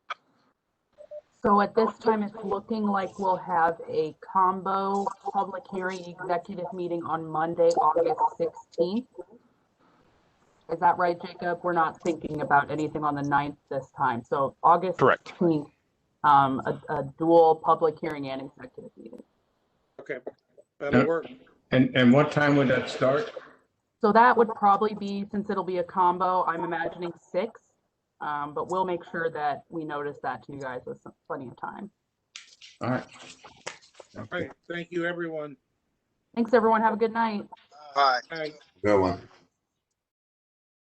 So at this time, it's looking like we'll have a combo public hearing executive meeting on Monday, August 16th. Is that right, Jacob? We're not thinking about anything on the 9th this time. So August Correct. 16th, um, a, a dual public hearing and executive meeting. Okay, that'll Yeah. work. And, and what time would that start? So that would probably be, since it'll be a combo, I'm imagining 6. Um, but we'll make sure that we notice that to you guys with some- plenty of time. All right. All right, thank you, everyone. Thanks, everyone. Have a good night. Bye. Good one.